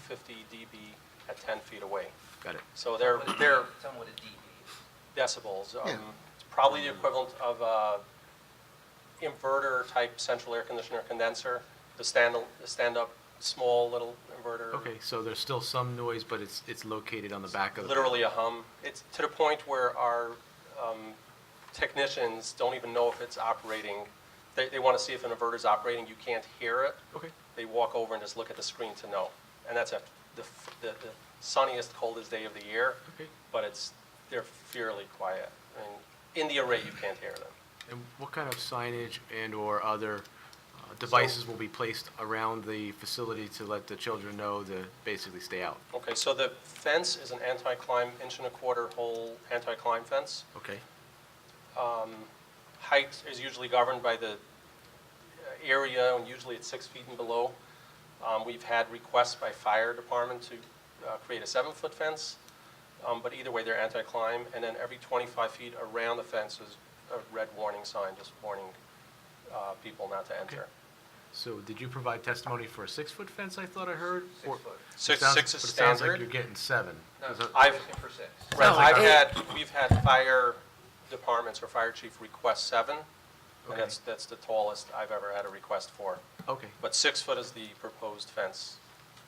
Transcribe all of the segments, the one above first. fifty dB at ten feet away. Got it. So they're, What a D- they're Tell me what a DB is. decibels. um, Yeah. It's probably the equivalent of a inverter-type central air conditioner condenser, the stand, the stand-up, small little inverter. Okay, so there's still some noise, but it's, it's located on the back of the. Literally a hum. It's to the point where our um, technicians don't even know if it's operating. They, they want to see if an inverter's operating. You can't hear it. Okay, They walk over and just look at the screen to know. And that's at the, f- the the sunniest, coldest day of the year, okay. but it's, they're fairly quiet. I mean, in the array, you can't hear them. And what kind of signage and/or other uh, devices will be placed around the facility to let the children know to basically stay out? Okay, so the fence is an anti-climb, inch and a quarter hole anti-climb fence. Okay, Height is usually governed by the uh, area, and usually it's six feet and below. Um, We've had requests by fire department to uh, create a seven-foot fence, um, but either way, they're anti-climb. And then every 25 feet around the fence is a red warning sign, just warning uh, people not to enter. so did you provide testimony for a six-foot fence, I thought I heard? Six or- foot. Six, It sounds- six is but it sounds like standard. you're getting seven. No, Is that- I've- looking for six. Right, No, I've like had, we've had fire departments or fire chief request seven, Okay. and that's, that's the tallest I've ever had a request for. Okay, But six foot is the proposed fence.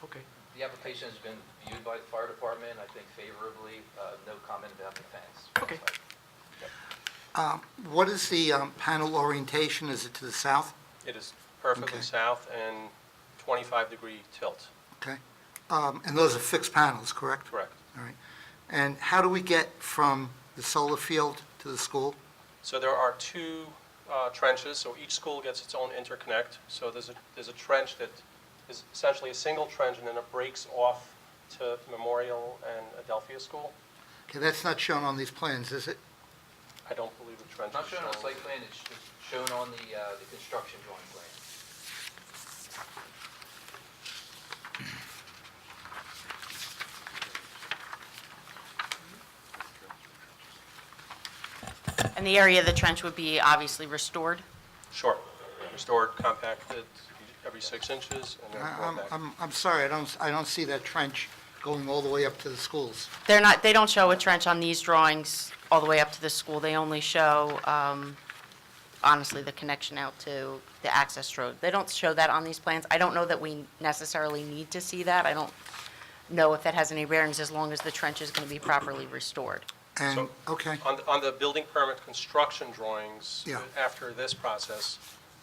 okay, The application has been viewed by the fire department, I think favorably, Uh, no comment about the fence. Okay. What is the um, panel orientation? Is it to the south? It is perfectly Okay. south and twenty-five degree tilt, Okay. Um, And those are fixed panels, correct? correct. All right. And how do we get from the solar field to the school? So there are two uh, trenches, so each school gets its own interconnect. So there's a, there's a trench that is essentially a single trench, and then it breaks off to Memorial and Adelphia School. Okay, that's not shown on these plans, is it? I don't believe the trench It's is Not shown on the shown. site plan, it's sh- it's shown on the, uh, the construction drawing plan. And the area of the trench would be obviously restored? Sure. Restored, compacted, every six inches, and then I- going I'm, back. I'm, I'm sorry, I don't, I don't see that trench going all the way up to the schools. They're not, they don't show a trench on these drawings all the way up to the school. They only show, um, honestly, the connection out to the access road. They don't show that on these plans. I don't know that we necessarily need to see that. I don't know if that has any bearings as long as the trench is going to be properly restored. And, So- uh, okay, On, the- on the building permit construction drawings, Yeah. after this process,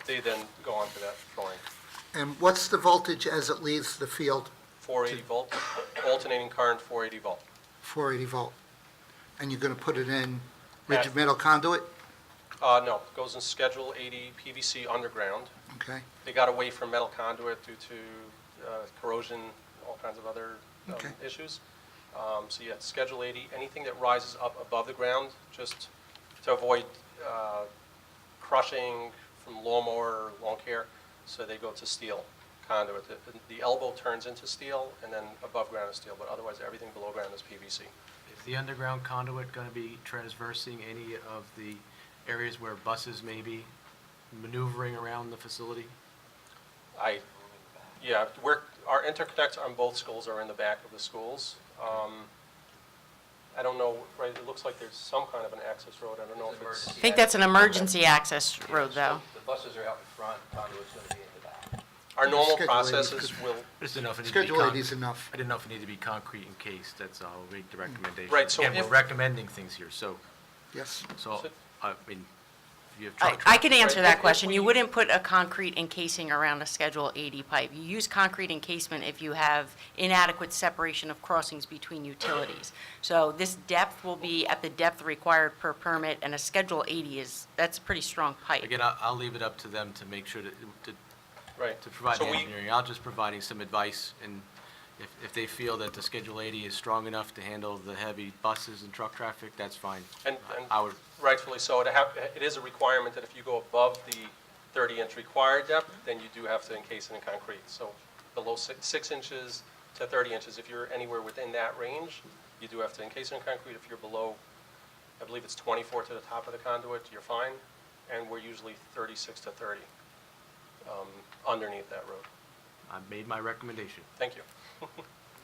they then go on to that drawing. and what's the voltage as it leaves the field, 480 volt, alternating current 480 volt. 480 volt? And you're going to put it in At- rigid metal conduit? Uh, no, goes in Schedule 80 PVC underground. Okay, They got away from metal conduit due to uh, corrosion, all kinds of other um, Okay. issues. Um, So yeah, Schedule 80, anything that rises up above the ground, just to avoid uh, crushing from lawnmower or lawn care, so they go to steel conduit. The- The elbow turns into steel, and then above ground is steel, but otherwise, everything below ground is PVC. Is the underground conduit going to be transversing any of the areas where buses may be maneuvering around the facility? I, yeah, we're, our interconnects on both schools are in the back of the schools. Um, I don't know, right, it looks like there's some kind of an access road, I don't know if it's, I think that's an emergency access road, though. The buses are out in front, conduit's going to be in the back. our normal Schedule A, we processes could- will, Just enough. it needed to be Schedule con- 80 is enough. Mm. I didn't know if it needed to be concrete in case, that's all, we the recommendation. Right, so Again, if- we're recommending things here, so, Yes, so, So- I mean, if you have I truck I traffic. could answer Right, if- that if question. You we- wouldn't put a concrete encasing around a Schedule 80 pipe. You use concrete encasement if you have inadequate separation of crossings between utilities. So this depth will be at the depth required per permit, and a Schedule 80 is, that's a pretty strong pipe. Again, I'll, I'll leave it up to them to make sure that, to, right. to provide So the we- engineering. I'll just providing some advice, and if, if they feel that the Schedule 80 is strong enough to handle the heavy buses and truck traffic, that's fine. And- I- and- I would, Rightfully so, it hap, it is a requirement that if you go above the thirty inch required depth, then you do have to encase it in concrete. So below six, six inches to thirty inches, if you're anywhere within that range, you do have to encase it in concrete. If you're below, I believe it's twenty-four to the top of the conduit, you're fine, and we're usually thirty-six to thirty, um, underneath that road. I made my recommendation. Thank you.